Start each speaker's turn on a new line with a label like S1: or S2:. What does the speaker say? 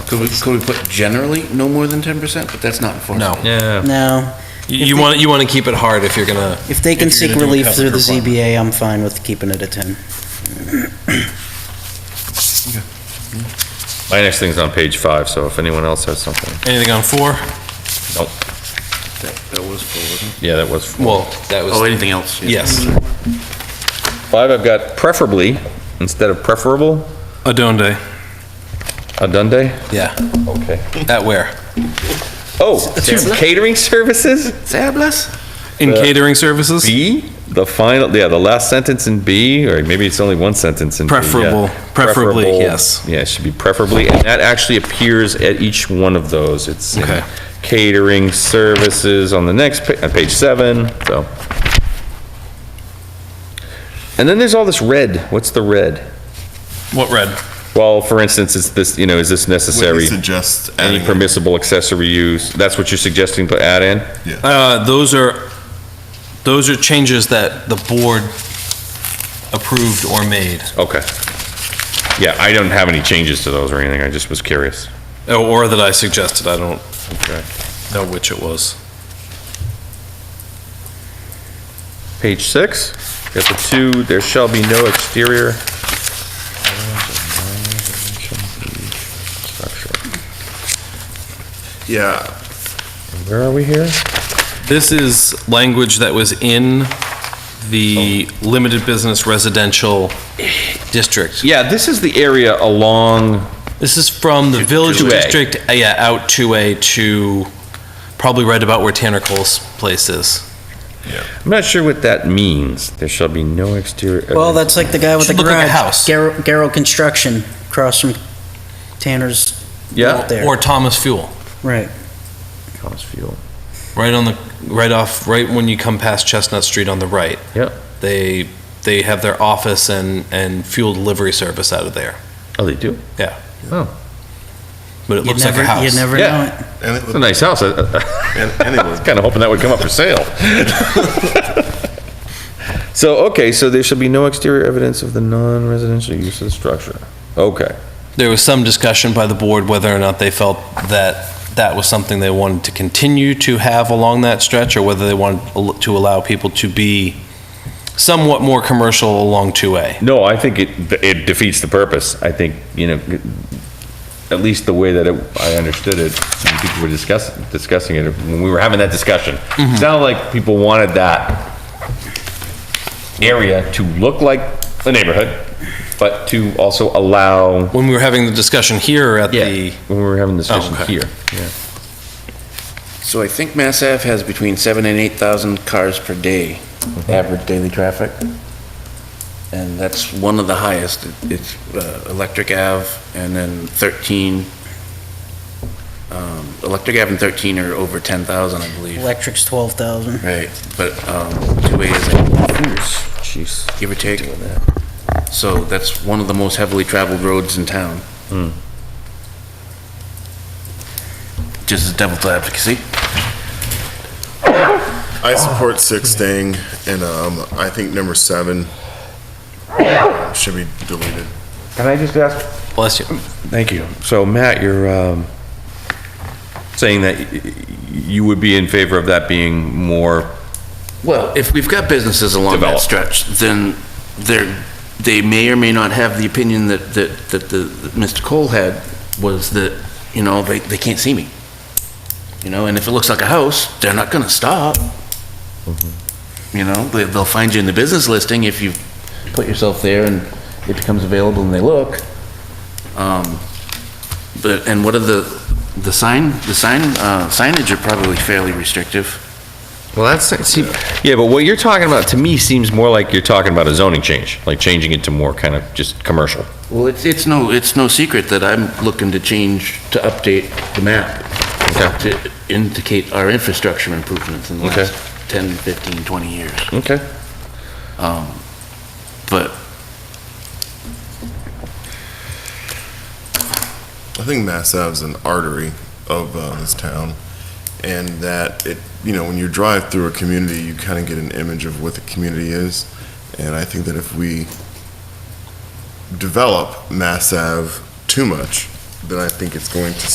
S1: Could we, could we put generally no more than ten percent, but that's not enforceable?
S2: No.
S3: Yeah.
S4: No,
S2: You you want, you want to keep it hard if you're gonna,
S4: if they can
S2: If you're
S4: seek
S2: gonna do a
S4: relief
S2: covenant
S4: through the
S2: requirement.
S4: ZBA, I'm fine with keeping it at 10.
S5: My next thing's on page five, so if anyone else has something,
S2: anything on four?
S5: nope,
S1: That, that was full, wasn't it?
S5: yeah, that was.
S2: Well, that
S1: Oh,
S2: was,
S1: anything else?
S2: yes.
S5: Five, I've got preferably, instead of preferable,
S2: Adonde.
S5: a Dundee.
S2: Yeah,
S5: Okay.
S2: at where?
S5: Oh, to catering services?
S1: Sabless?
S2: In catering services?
S5: B, the final, yeah, the last sentence in B, or maybe it's only one sentence in B. yeah.
S2: Preferable. Preferably,
S5: Preferable.
S2: yes.
S5: Yeah, it should be preferably, and that actually appears at each one of those. It's in
S2: Okay.
S5: catering services on the next, pa- on page seven, so. And then there's all this red. What's the red?
S2: What red?
S5: Well, for instance, it's this, you know, is this necessary?
S6: suggest
S5: Any
S6: adding-
S5: permissible accessory use? That's what you're suggesting to add in?
S2: Uh, those are, those are changes that the board approved or made,
S5: Okay. Yeah, I don't have any changes to those or anything, I just was curious.
S2: Oh, or that I suggested, I don't
S5: Okay.
S2: know which it was.
S5: Page six, got the two, there shall be no exterior.
S6: Yeah,
S5: Where are we here?
S2: This is language that was in the limited business residential district.
S5: Yeah, this is the area along,
S2: This is from the village
S5: 2A.
S2: district, uh, yeah, out 2A to probably right about where Tanner Cole's place is.
S5: I'm not sure what that means. There shall be no exterior.
S4: Well, that's like the guy with the
S2: Should look like a
S4: garage.
S2: house.
S4: Garrow Garrow Construction, across from Tanner's,
S5: Yeah.
S4: There.
S2: Or Thomas Fuel,
S4: right.
S5: Thomas Field.
S2: right on the, right off, right when you come past Chestnut Street on the right.
S5: Yep.
S2: They, they have their office and, and fuel delivery service out of there,
S5: Oh, they do?
S2: Yeah.
S5: Oh,
S2: but it
S4: You'd
S2: looks like a
S4: never-
S2: house.
S4: You'd never
S5: Yeah.
S4: know it.
S6: and
S5: it's a
S6: it,
S5: nice house. I
S6: and
S5: I was
S6: anyone,
S5: kind of hoping that would come up for sale. So, okay, so there shall be no exterior evidence of the non-residential use of the structure. Okay.
S2: There was some discussion by the board whether or not they felt that that was something they wanted to continue to have along that stretch, or whether they wanted al- to allow people to be somewhat more commercial along 2A.
S5: No, I think it, it defeats the purpose. I think, you know, at least the way that it- I understood it, when people were discussing, discussing it, when we were having that discussion. It sounded like people wanted that area to look like a neighborhood, but to also allow,
S2: When we were having the discussion here at
S5: yeah,
S2: the,
S5: when we were having the discussion
S2: okay.
S5: here.
S1: So I think Mass Ave has between seven and eight thousand cars per day, average daily traffic. And that's one of the highest. It- It's uh, Electric Ave and then 13. um, Electric Ave and 13 are over 10,000, I believe.
S4: Electric's 12,000.
S1: Right, but um, 2A is like,
S5: Jeez.
S1: give or take. So that's one of the most heavily traveled roads in town. Just as devil's advocacy.
S6: I support six staying, and um, I think number seven should be deleted.
S5: Can I just ask
S2: bless you,
S5: Thank you. So Matt, you're um, saying that y- y- you would be in favor of that being more,
S1: Well, if we've got businesses along that
S5: Develop.
S1: stretch, then they're, they may or may not have the opinion that, that, that the, that Mr. Cole had was that, you know, they, they can't see me. You know, and if it looks like a house, they're not gonna stop. You know, they, they'll find you in the business listing if you put yourself there and it becomes available and they look. Um, but, and what are the, the sign, the sign, uh, signage are probably fairly restrictive.
S5: well, that's, see, yeah, but what you're talking about, to me, seems more like you're talking about a zoning change, like changing it to more kind of just commercial.
S1: Well, it's, it's no, it's no secret that I'm looking to change, to update the map
S5: Okay.
S1: to indicate our infrastructure improvements in the
S5: Okay.
S1: last 10, 15, 20 years.
S5: Okay.
S1: Um, But
S6: I think Mass Ave is an artery of uh, this town, and that it, you know, when you drive through a community, you kind of get an image of what the community is, and I think that if we develop Mass Ave too much, then I think it's going to